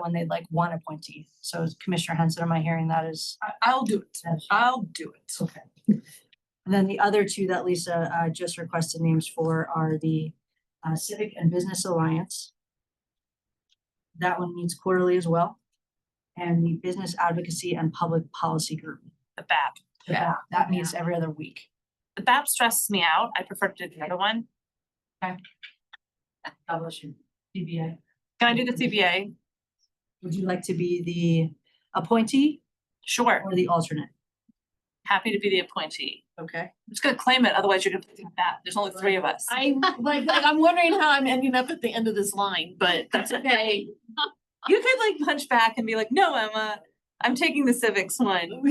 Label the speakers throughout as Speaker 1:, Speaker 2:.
Speaker 1: when they like one appointee. So is Commissioner Henson, am I hearing that is?
Speaker 2: I, I'll do it.
Speaker 1: Yes.
Speaker 2: I'll do it.
Speaker 1: Okay. And then the other two that Lisa uh just requested names for are the uh, Civic and Business Alliance. That one meets quarterly as well. And the Business Advocacy and Public Policy Group.
Speaker 3: the BAP.
Speaker 1: the
Speaker 3: Yeah.
Speaker 1: BAP, That meets every other week.
Speaker 3: The BAP stresses me out. I prefer to do the other one.
Speaker 1: God bless you. DBA.
Speaker 3: Can I do the CBA?
Speaker 1: Would you like to be the appointee
Speaker 3: Sure,
Speaker 1: or the alternate?
Speaker 3: happy to be the appointee.
Speaker 1: Okay.
Speaker 3: I'm just gonna claim it, otherwise you're gonna put it in that. There's only three of us.
Speaker 4: I, like, like, I'm wondering how I'm ending up at the end of this line, but that's okay.
Speaker 3: You could like punch back and be like, no, Emma, I'm taking the civics one.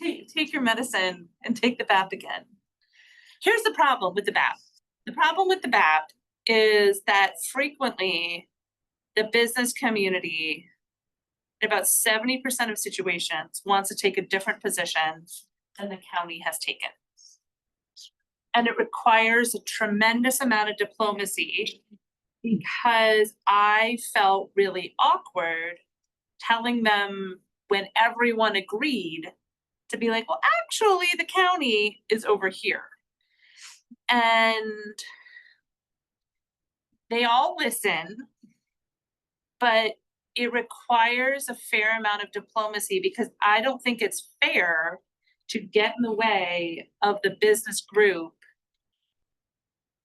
Speaker 3: Take, take your medicine and take the BAP again. Here's the problem with the BAP. The problem with the BAP is that frequently the business community, in about seventy percent of situations, wants to take a different position than the county has taken. And it requires a tremendous amount of diplomacy because I felt really awkward telling them when everyone agreed to be like, well, actually, the county is over here. And they all listen, but it requires a fair amount of diplomacy because I don't think it's fair to get in the way of the business group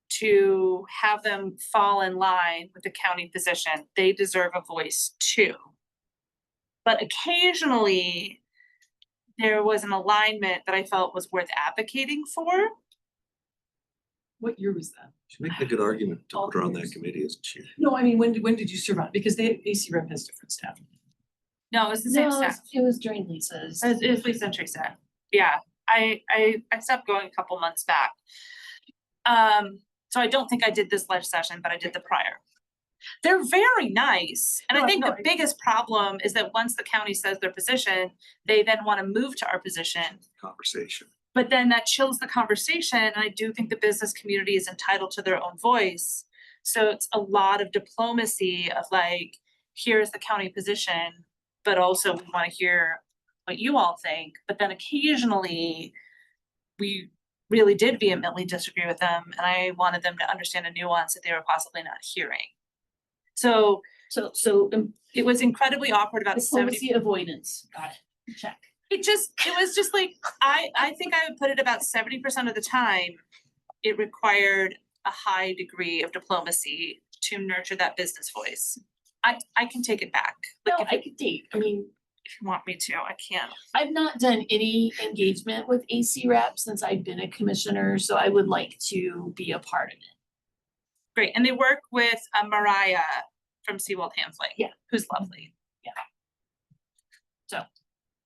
Speaker 3: to have them fall in line with the county position. They deserve a voice too. But occasionally, there was an alignment that I felt was worth advocating for.
Speaker 2: What year was that?
Speaker 5: She makes a good argument to
Speaker 2: All
Speaker 5: put her on that
Speaker 2: years.
Speaker 5: committee as chair.
Speaker 2: No, I mean, when, did- when did you serve on? Because they, AC rep has different staff.
Speaker 3: No, it was the same staff.
Speaker 4: it was during Lisa's.
Speaker 3: It was- it was Lisa and Teresa. Yeah, I, I, I stopped going a couple months back. Um, so I don't think I did this live session, but I did the prior. They're very nice, and I
Speaker 2: No,
Speaker 3: think
Speaker 2: no,
Speaker 3: the
Speaker 2: I-
Speaker 3: biggest problem is that once the county says their position, they then wanna move to our position.
Speaker 5: Conversation.
Speaker 3: But then that chills the conversation, and I do think the business community is entitled to their own voice. So it's a lot of diplomacy of like, here's the county position, but also we wanna hear what you all think, but then occasionally we really did vehemently disagree with them, and I wanted them to understand a nuance that they were possibly not hearing. So
Speaker 4: So, so um,
Speaker 3: it was incredibly awkward about seventy
Speaker 4: diplomacy avoidance, got it, check.
Speaker 3: it just, it was just like, I, I think I would put it about seventy percent of the time, it required a high degree of diplomacy to nurture that business voice. I, I can take it back,
Speaker 4: No,
Speaker 3: like, if
Speaker 4: I
Speaker 3: you,
Speaker 4: could date, I mean,
Speaker 3: if you want me to, I can.
Speaker 4: I've not done any engagement with AC rep since I've been a commissioner, so I would like to be a part of it.
Speaker 3: Great, and they work with uh, Mariah from Seawold Hansley.
Speaker 4: Yeah.
Speaker 3: Who's lovely.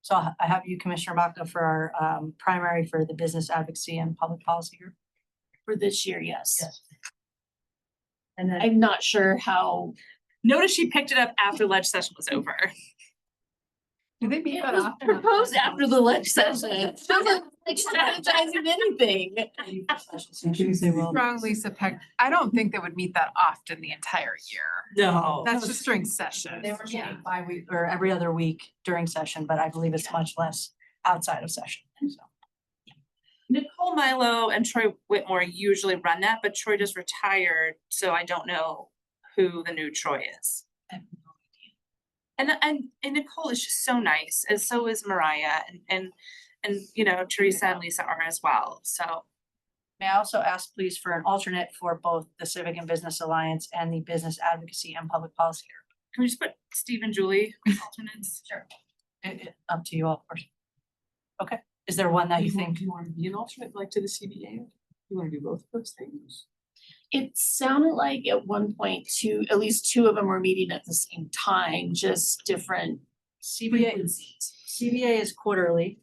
Speaker 1: So I'll ha- I have you, Commissioner Baca, for our um primary for the Business Advocacy and Public Policy Group.
Speaker 4: For this year, yes.
Speaker 1: Yes. And then
Speaker 4: I'm not sure how.
Speaker 3: Notice she picked it up after ledge session was over.
Speaker 2: Do they meet
Speaker 4: It was proposed
Speaker 6: Um,
Speaker 4: after the ledge session. It Doesn't like strategizing anything.
Speaker 1: Tuesday will.
Speaker 6: Strong Lisa Peck, I don't think they would meet that often the entire year.
Speaker 2: No.
Speaker 6: That's just during session.
Speaker 1: They were meeting
Speaker 4: Yeah.
Speaker 1: bi-week or every other week during session, but I believe it's much less outside of session, so.
Speaker 3: Nicole Milo and Troy Whitmore usually run that, but Troy just retired, so I don't know who the new Troy is.
Speaker 4: I have
Speaker 3: And and and Nicole is just so nice, and so is Mariah and and and you know, Teresa and Lisa are as well, so.
Speaker 1: May I also ask please for an alternate for both the Civic and Business Alliance and the Business Advocacy and Public Policy Group?
Speaker 3: Can we just put Steve and Julie as alternates? Sure.
Speaker 1: It- it- up to you all, of course. Okay, is there one that you think?
Speaker 2: Do you want to be an alternate, like to the CBA? You want to do both of those things?
Speaker 4: It sounded like at one point two, at least two of them were meeting at the same time, just different
Speaker 1: CBA,
Speaker 4: frequencies.
Speaker 1: CBA is quarterly.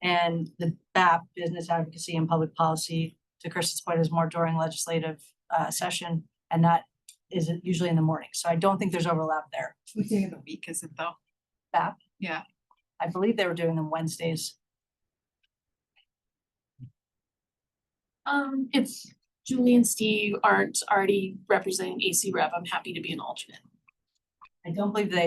Speaker 1: And the BAP, Business Advocacy and Public Policy, to Kristen's point, is more during legislative uh session. And that is usually in the morning, so I don't think there's overlap there.
Speaker 6: What day of the week is it though?
Speaker 1: I believe they were doing them Wednesdays.
Speaker 4: Um, if Julie and Steve aren't already representing AC rep, I'm happy to be an alternate.
Speaker 1: I I don't believe they